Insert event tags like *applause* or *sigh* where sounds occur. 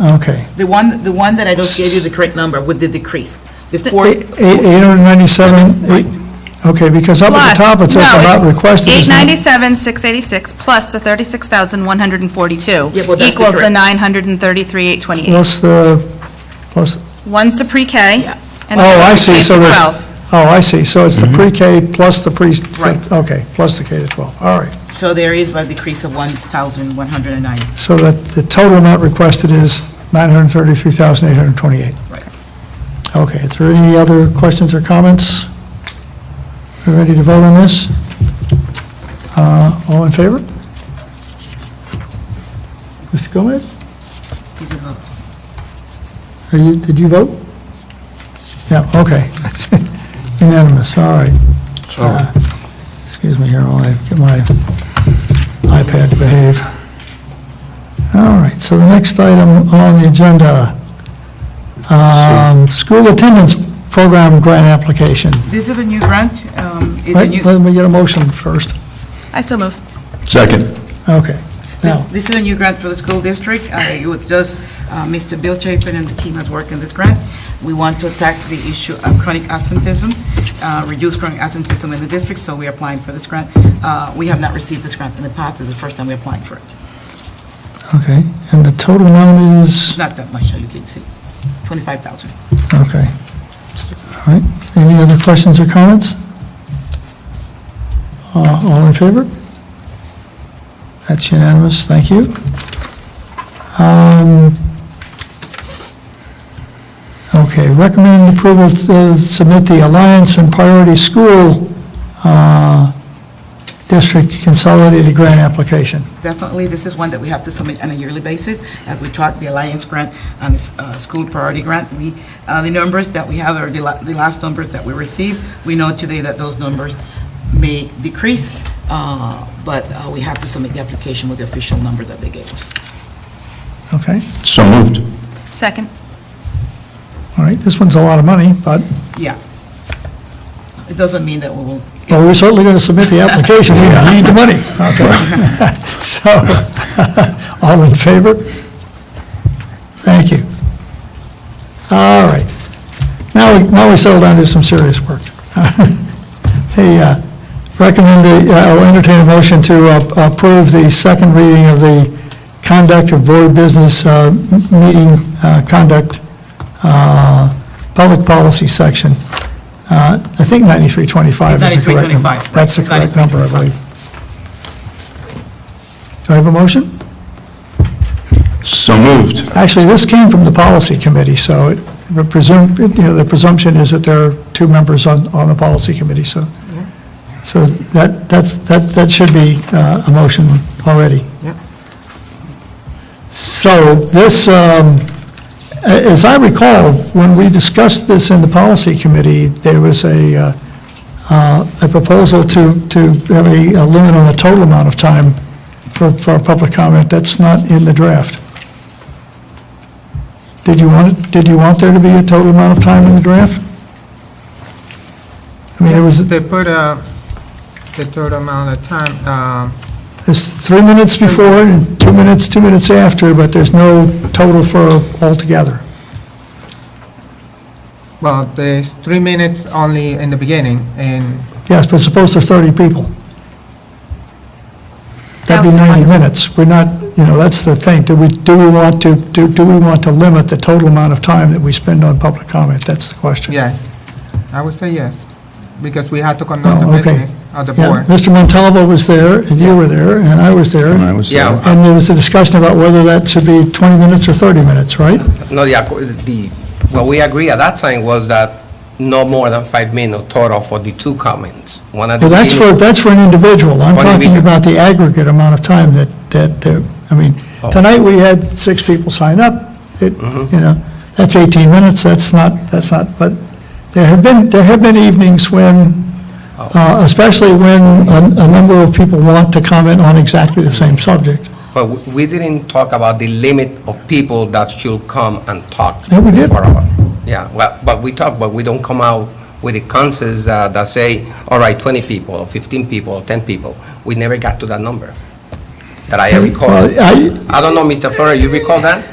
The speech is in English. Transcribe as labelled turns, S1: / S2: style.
S1: Okay.
S2: The one, the one that I just gave you the correct number with the decrease, the four.
S1: Eight- eight- 897, eight- okay, because up at
S3: Plus,
S1: the top it says
S3: no,
S1: the
S3: it's
S1: amount requested is not.
S3: 897, 686, plus the 36,142.
S2: Yeah, well, that's the
S3: Equals the
S2: correct-
S3: 933, 828.
S1: Plus the, plus,
S3: One's the pre-K.
S2: Yeah.
S3: and the
S1: oh, I
S3: other's
S1: see,
S3: K
S1: so
S3: through
S1: there's,
S3: 12.
S1: oh, I see, so it's the pre-K plus the pre,
S2: Right.
S1: okay, plus the K to 12, all right.
S2: So there is a decrease of 1,109.
S1: So that the total amount requested is 933,828.
S2: Right.
S1: Okay, is there any other questions or comments? We ready to vote on this? Uh, All in favor? Mr. Gomez,
S2: Is it not?
S1: are you, did you vote? Yeah, okay. *laughs* Unanimous, all right. Uh, Excuse me here while I get my iPad to behave. All right, so the next item on the agenda, um, school attendance program grant application.
S2: This is a new grant, um, is a
S1: Wait,
S2: new,
S1: Let me get a motion first.
S3: I so move.
S4: Second.
S1: Okay.
S2: this-
S1: Now,
S2: this is a new grant for the school district. Uh, It was just uh, Mr. Bill Chapin and the team has worked on this grant. We want to attack the issue of chronic absenteeism, uh, reduce chronic absenteeism in the district, so we're applying for this grant. Uh, We have not received this grant in the past, this is the first time we're applying for it.
S1: okay, and the total amount
S2: It's
S1: is,
S2: Not that much, as you can see, 25,000.
S1: okay. All right, any other questions or comments? Uh, All in favor? That's unanimous, thank you. Um, Okay, recommend approval to submit the Alliance and Priority School uh, District Consolidated Grant Application.
S2: Definitely, this is one that we have to submit on a yearly basis. As we talked, the Alliance Grant and the uh, School Priority Grant, we, uh, the numbers that we have are the la- the last numbers that we received. We know today that those numbers may decrease, uh, but uh, we have to submit the application with the official number that they gave us.
S1: Okay,
S4: So moved.
S3: Second.
S1: all right, this one's a lot of money, but
S2: Yeah. It doesn't mean that we will,
S1: Well, we're certainly going to submit the application, we need the money. Okay. *laughs* So, all in favor? Thank you. All right. Now, we now we settle down to some serious work. *laughs* The, uh, recommend, the- uh, I'll entertain a motion to uh, approve the second reading of the conduct of board business uh, m- meeting uh, conduct, uh, public policy section. Uh, I think 9325 is the correct number.
S2: 9325, right.
S1: That's the correct number, I believe. Do I have a motion?
S4: So moved.
S1: Actually, this came from the policy committee, so it presumed, you know, the presumption is that there are two members on, on the policy committee, so. So that, that's, that, that should be uh, a motion already.
S2: Yeah.
S1: So this, um, a- as I recall, when we discussed this in the policy committee, there was a, uh, uh, a proposal to, to have a a limit on the total amount of time for, for public comment. That's not in the draft. Did you want, it- did you want there to be a total amount of time in the draft? I mean, it was,
S5: They put uh, the total amount of time, um,
S1: it's three minutes before and two minutes, two minutes after, but there's no total for altogether.
S5: well, there's three minutes only in the beginning, and
S1: Yes, but suppose there's 30 people. That'd be 90 minutes. We're not, you know, that's the thing. Do we, do we want to, do, do we want to limit the total amount of time that we spend on public comment? That's the question.
S5: yes, I would say yes, because we had to conduct
S1: Oh,
S5: the
S1: okay.
S5: business of the
S1: Yeah,
S5: board.
S1: Mr. Montalvo was there, and you were there, and I was there.
S4: And I was there.
S6: Yeah.
S1: And there was a discussion about whether that should be 20 minutes or 30 minutes, right?
S6: No, the, acco- the, what we agreed at that time was that no more than five minutes total for the two comments. One at the
S1: Well, that's for,
S6: beginning.
S1: that's for an individual. I'm
S6: For an
S1: talking
S6: individual.
S1: about the aggregate amount of time that, that, that- I mean, tonight we had six people sign up. It, you know, that's 18 minutes, that's not, that's not, but there have been, there have been evenings when, uh, especially when a, a number of people want to comment on exactly the same subject.
S6: But we- we didn't talk about the limit of people that should come and talk.
S1: Yeah, we did.
S6: for our- Yeah, well, but we talk, but we don't come out with the consensus uh, that, that say, all right, twenty people, or fifteen people, or ten people. We never got to that number that I recall.
S1: Well, I-
S6: I don't know, Mr. Ferrer, you recall that?